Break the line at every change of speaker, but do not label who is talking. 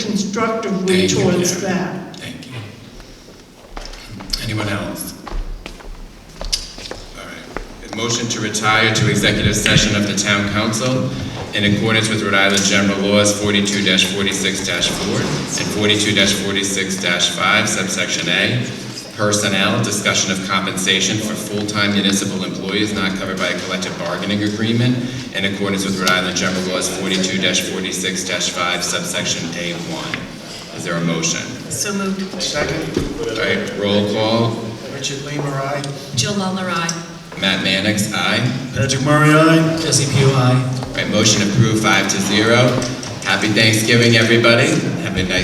constructively
Thank you,
towards
Karen.
that.
Thank you. Anyone else? All right. A Motion to retire to executive session of the town council in accordance with Rhode Island General Laws forty-two forty-six four and forty-two forty-six five subsection A. Personnel, discussion of compensation for full-time municipal employees not covered by a collective bargaining agreement in accordance with Rhode Island General Laws forty-two forty-six five subsection A one. Is there a motion?
So moved.
Second,
All right, roll call.
Richard Lima, aye.
Jill Lawler, aye.
Matt Mannix, aye.
Patrick Murray, aye.
Jesse Pui, aye.
All right, motion approved, five to zero. Happy Thanksgiving, everybody. Have a nice